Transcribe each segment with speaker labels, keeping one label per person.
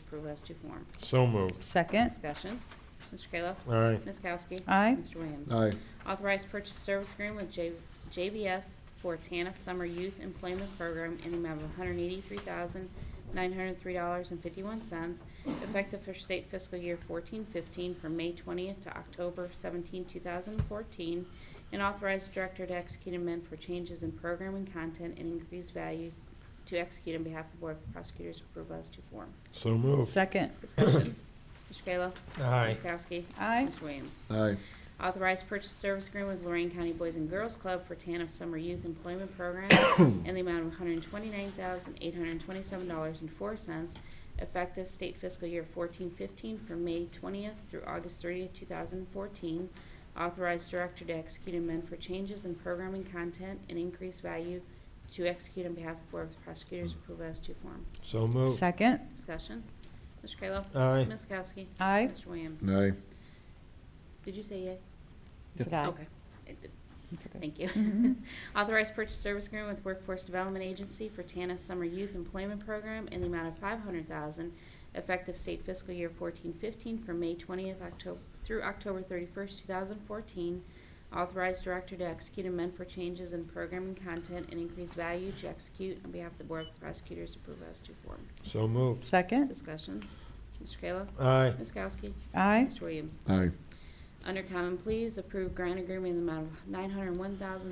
Speaker 1: approve as to form.
Speaker 2: So moved.
Speaker 3: Second.
Speaker 1: Discussion. Mr. Kayla.
Speaker 2: Aye.
Speaker 1: Ms. Kowski.
Speaker 3: Aye.
Speaker 1: Mr. Williams.
Speaker 4: aye,
Speaker 1: Authorized purchase service agreement with J- JBS for TANF Summer Youth Employment Program in the amount of $183,903.51, effective for state fiscal year 14-15 from May 20th to October 17, 2014, and authorized director to execute amend for changes in program and content and increased value to execute on behalf of the Board of Prosecutors approval as to form.
Speaker 2: So moved.
Speaker 3: Second.
Speaker 1: Discussion. Mr. Kayla.
Speaker 2: Aye.
Speaker 1: Ms. Kowski.
Speaker 3: Aye.
Speaker 1: Mr. Williams.
Speaker 4: aye,
Speaker 1: Authorized purchase service agreement with Lorraine County Boys and Girls Club for TANF Summer Youth Employment Program in the amount of $129,827.04, effective state fiscal year 14-15 from May 20th through August 30th, 2014. Authorized director to execute amend for changes in programming content and increased value to execute on behalf of Board of Prosecutors approve as to form.
Speaker 2: So moved.
Speaker 3: Second.
Speaker 1: Discussion. Mr. Kayla.
Speaker 2: Aye.
Speaker 1: Ms. Kowski.
Speaker 3: Aye.
Speaker 1: Mr. Williams.
Speaker 4: aye,
Speaker 1: Did you say yay?
Speaker 3: Is it aye?
Speaker 1: Okay. It-
Speaker 3: It's okay.
Speaker 1: Thank you.
Speaker 3: Mhm.
Speaker 1: Authorized purchase service agreement with Workforce Development Agency for TANF Summer Youth Employment Program in the amount of five hundred thousand, effective state fiscal year fourteen fifteen from May twentieth October, through October thirty-first, two thousand fourteen. Authorized director to execute amend for changes in program and content and increase value to execute on behalf of the Board of Prosecutors approve as to form.
Speaker 2: So moved.
Speaker 3: Second.
Speaker 1: Discussion. Mr. Kayla?
Speaker 2: Aye.
Speaker 1: Ms. Kowski?
Speaker 3: Aye.
Speaker 1: Mr. Williams?
Speaker 4: aye,
Speaker 1: Under Common Pleas, approve grant agreement in the amount of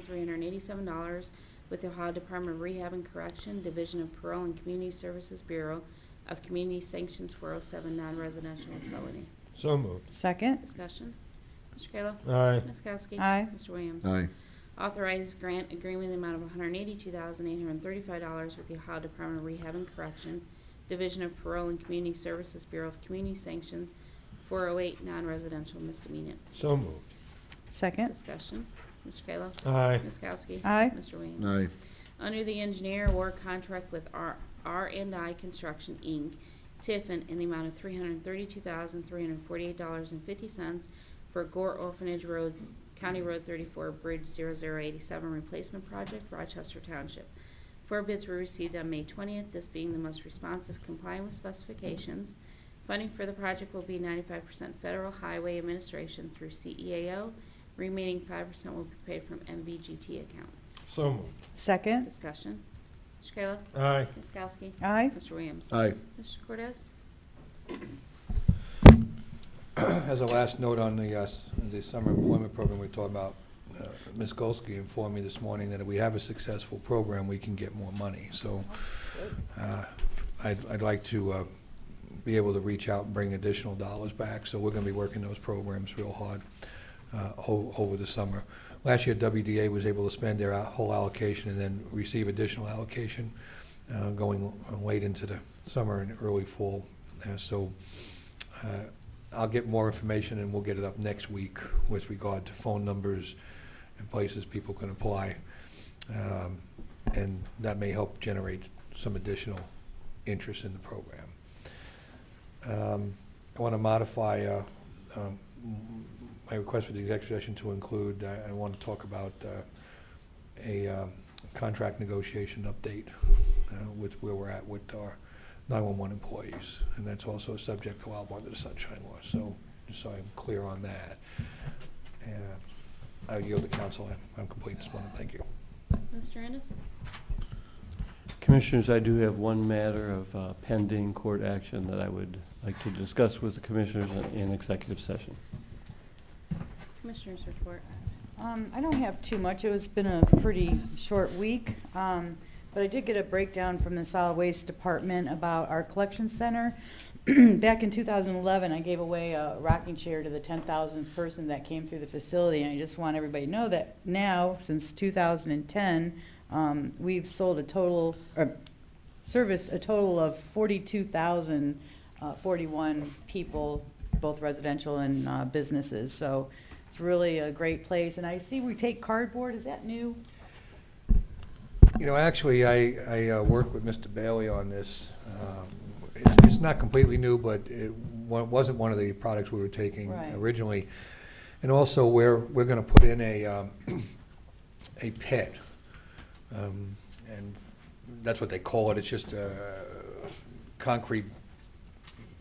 Speaker 1: $901,387 with the Ohio Department of Rehab and Correction, Division of Parole and Community Services Bureau of Community Sanctions 407 Non-Residential Felony.
Speaker 2: So moved.
Speaker 3: Second.
Speaker 1: Discussion. Mr. Kayla?
Speaker 2: Aye.
Speaker 1: Ms. Kowski?
Speaker 3: Aye.
Speaker 1: Mr. Williams?
Speaker 4: aye,
Speaker 1: Authorized grant agreement in the amount of $182,835 with the Ohio Department of Rehab and Correction, Division of Parole and Community Services Bureau of Community Sanctions 408 Non-Residential Misdemeanor.
Speaker 2: So moved.
Speaker 3: Second.
Speaker 1: Discussion. Mr. Kayla.
Speaker 2: Aye.
Speaker 1: Ms. Kowski.
Speaker 3: Aye.
Speaker 1: Mr. Williams.
Speaker 4: aye,
Speaker 1: Under the engineer award contract with R and I Construction, Inc., Tiffin, in the amount of $332,348.50 for Gore Orphanage Roads, County Road 34, Bridge 0087 Replacement Project, Rochester Township. Four bids were received on May 20th, this being the most responsive complying with specifications. Funding for the project will be 95% Federal Highway Administration through CEAO, remaining 5% will be paid from MVGT account.
Speaker 2: So moved.
Speaker 3: Second.
Speaker 1: Discussion. Mr. Kayla.
Speaker 2: Aye.
Speaker 1: Ms. Kowski.
Speaker 3: Aye.
Speaker 1: Mr. Williams.
Speaker 4: aye,
Speaker 1: Mr. Cordez.
Speaker 5: As a last note on the, uh, s- the summer employment program we talked about, uh, Ms. Golsky informed me this morning that if we have a successful program, we can get more money. So uh, I'd, I'd like to uh, be able to reach out and bring additional dollars back. So we're going to be working those programs real hard uh, o- over the summer. Last year, WDA was able to spend their out- whole allocation and then receive additional allocation uh, going late into the summer and early fall. Uh, So uh, I'll get more information and we'll get it up next week with regard to phone numbers and places people can apply. Um, And that may help generate some additional interest in the program. Um, I want to modify uh, um, my request for the executive session to include, uh, I I want to talk about uh, a um, contract negotiation update uh, with where we're at with our 911 employees, and that's also subject to allowable under the Sunshine Law, so, just so I'm clear on that. And I yield to council, I'm- I'm complete this morning, thank you.
Speaker 1: Mr. Ennis.
Speaker 6: Commissioners, I do have one matter of uh, pending court action that I would like to discuss with the commissioners in- in executive session.
Speaker 1: Commissioners report.
Speaker 3: Um, I don't have too much. It has been a pretty short week. Um, but I did get a breakdown from the solid waste department about our collection center. Back in 2011, I gave away a rocking chair to the 10,000th person that came through the facility. And I just want everybody to know that now, since 2010, um, we've sold a total, or serviced a total of 42,041 people, both residential and uh, businesses. So it's really a great place. And I see we take cardboard, is that new?
Speaker 5: You know, actually, I, I uh, worked with Mr. Bailey on this. Um, it's- It's not completely new, but it wa- wasn't one of the products we were taking
Speaker 3: Right.
Speaker 5: originally. And also, we're, we're going to put in a, um, a pit. Um, And that's what they call it. It's just a uh, concrete